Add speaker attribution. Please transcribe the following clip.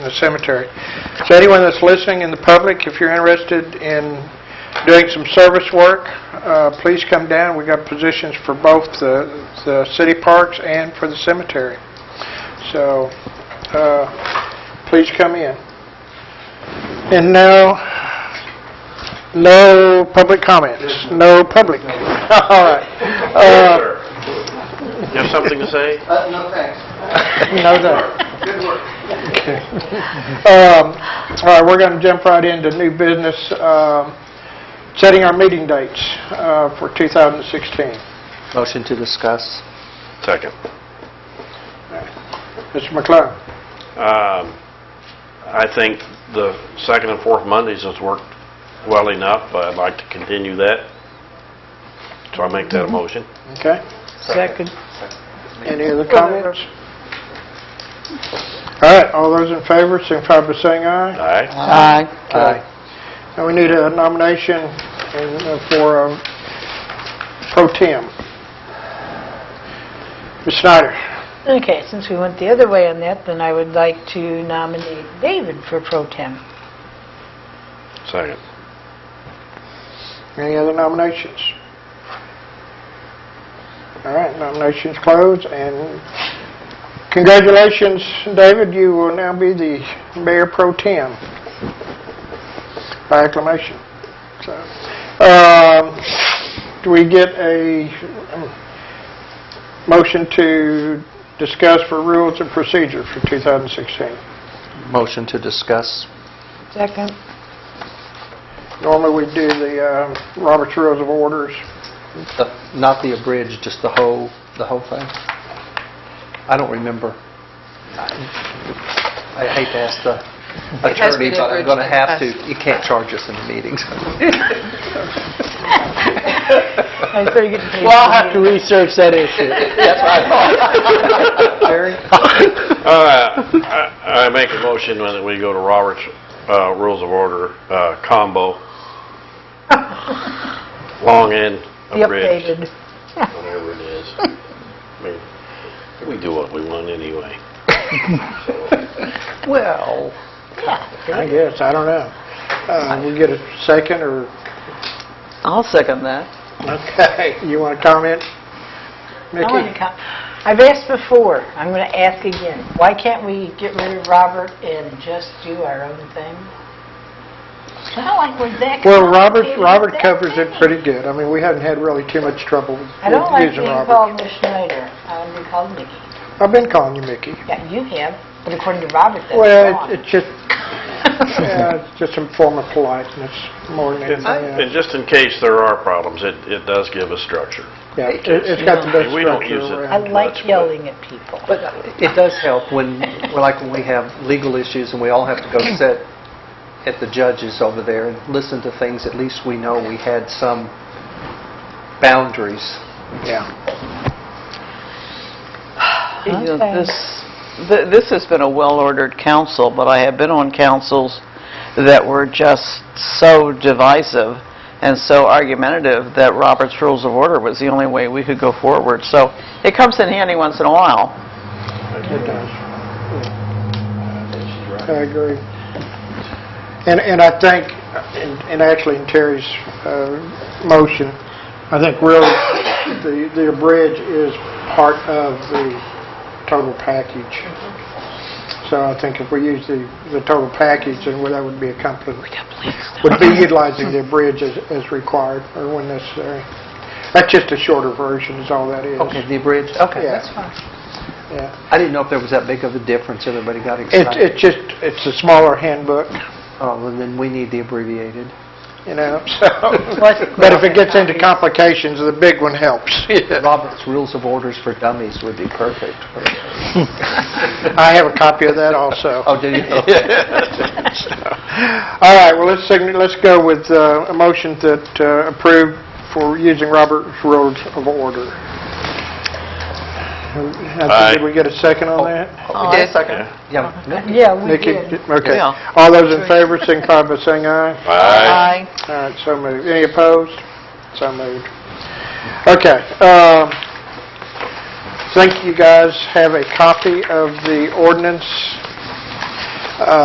Speaker 1: in the cemetery. So anyone that's listening in the public, if you're interested in doing some service work, uh, please come down. we got positions for both the the city parks and for the cemetery. So uh, please come in. And now, no public comments, no public. All right. Uh,
Speaker 2: You have something to say?
Speaker 3: Uh, no thanks.
Speaker 1: No, no.
Speaker 3: Good work.
Speaker 1: Okay. Um, All right, we're going to jump right into new business, um, setting our meeting dates uh, for 2016.
Speaker 4: Motion to discuss.
Speaker 2: Second.
Speaker 1: Mr. McClung?
Speaker 2: Um, I think the second and fourth Mondays has worked well enough. I'd like to continue that. So I make that a motion.
Speaker 1: Okay.
Speaker 4: Second.
Speaker 1: Any other comments? All right, all those in favor, signify by saying
Speaker 2: All
Speaker 1: aye.
Speaker 2: right?
Speaker 4: Aye.
Speaker 1: Aye. And we need a nomination and, uh, for um, pro tem. Ms. Snyder?
Speaker 5: Okay, since we went the other way on that, then I would like to nominate David for pro tem.
Speaker 2: Second.
Speaker 1: Any other nominations? All right, nominations closed, and congratulations, David, you will now be the mayor pro tem by acclamation. So, um, Do we get a um, motion to discuss for rules and procedure for 2016?
Speaker 4: Motion to discuss.
Speaker 5: Second.
Speaker 1: Normally, we do the um, Robert's Rules of Orders.
Speaker 4: The- Not the abridged, just the whole, the whole thing? I don't remember. I I hate to ask the
Speaker 6: has been
Speaker 4: attorney, but I'm
Speaker 6: abridged
Speaker 4: going to
Speaker 6: in
Speaker 4: have to.
Speaker 6: the past.
Speaker 4: You can't charge us in the meetings.
Speaker 5: I better get paid.
Speaker 4: research that issue. That's what I thought. Jerry?
Speaker 2: Uh, I I make a motion that we go to Robert's uh, Rules of Order uh, combo. Long and
Speaker 5: The
Speaker 2: abridged,
Speaker 5: updated.
Speaker 2: whatever it is. I mean, We do what we want anyway.
Speaker 4: Well,
Speaker 1: I guess, I don't know. Uh, We get a second, or,
Speaker 6: I'll second that.
Speaker 1: okay, you want to comment?
Speaker 5: I wanna
Speaker 1: Mickey?
Speaker 5: co- I've asked before, I'm going to ask again, why can't we get rid of Robert and just do our own thing? Not like we're that
Speaker 1: Well, Robert,
Speaker 5: complicated,
Speaker 1: Robert
Speaker 5: that
Speaker 1: covers it
Speaker 5: thing.
Speaker 1: pretty good. I mean, we haven't had really too much trouble with
Speaker 5: I don't like
Speaker 1: using
Speaker 5: being
Speaker 1: Robert.
Speaker 5: called Miss Schneider, I'm being called Mickey.
Speaker 1: I've been calling you Mickey.
Speaker 5: Yeah, you have, but according to Robert, that's
Speaker 1: Well,
Speaker 5: wrong.
Speaker 1: it- it's just, yeah, it's just a form of politeness, more than anything
Speaker 2: And
Speaker 1: else.
Speaker 2: just in case there are problems, it it does give us structure.
Speaker 1: Yeah, it- It's got the best
Speaker 2: We don't
Speaker 1: structure
Speaker 2: use it.
Speaker 5: I
Speaker 1: around.
Speaker 2: That's
Speaker 5: like
Speaker 2: good.
Speaker 5: yelling at people.
Speaker 4: But it does help when, well, like when we have legal issues and we all have to go sit at the judges over there and listen to things, at least we know we had some boundaries.
Speaker 1: Yeah.
Speaker 6: You know,
Speaker 5: Okay.
Speaker 6: This th- this has been a well-ordered council, but I have been on councils that were just so divisive and so argumentative that Robert's Rules of Order was the only way we could go forward. So it comes in handy once in a while.
Speaker 1: It does. I agree. And, and I think, and and actually in Terry's uh, motion, I think really the, the bridge is part of the total package. So I think if we use the, the total package, then that would be accomplished, would be utilizing the bridge as, as required or when necessary. That's just a shorter version is all that is.
Speaker 4: Okay, the abridged, okay,
Speaker 1: Yeah.
Speaker 4: that's fine.
Speaker 1: Yeah.
Speaker 4: I didn't know if there was that big of a difference, everybody got
Speaker 1: It,
Speaker 4: excited.
Speaker 1: it's just, it's a smaller handbook,
Speaker 4: Oh, well, then we need the abbreviated.
Speaker 1: you know, so.
Speaker 5: Well, it's-
Speaker 1: But if it gets into complications, the big one helps.
Speaker 4: Robert's Rules of Orders for Dummies would be perfect.
Speaker 1: I have a copy of that also.
Speaker 4: Oh, do you?
Speaker 1: All right, well, let's, sign- let's go with uh, a motion that uh, approved for using Robert's Rules of Order.
Speaker 2: Aye.
Speaker 1: Did we get a second on that?
Speaker 4: Oh,
Speaker 6: did.
Speaker 4: Second. Yeah.
Speaker 5: Yeah, we
Speaker 1: Nikki,
Speaker 5: did.
Speaker 1: okay.
Speaker 6: Yeah.
Speaker 1: All those in favor, signify by saying aye.
Speaker 2: Aye.
Speaker 1: All right, so moved. Any opposed? So moved. Okay. um, Think you guys have a copy of the ordinance uh,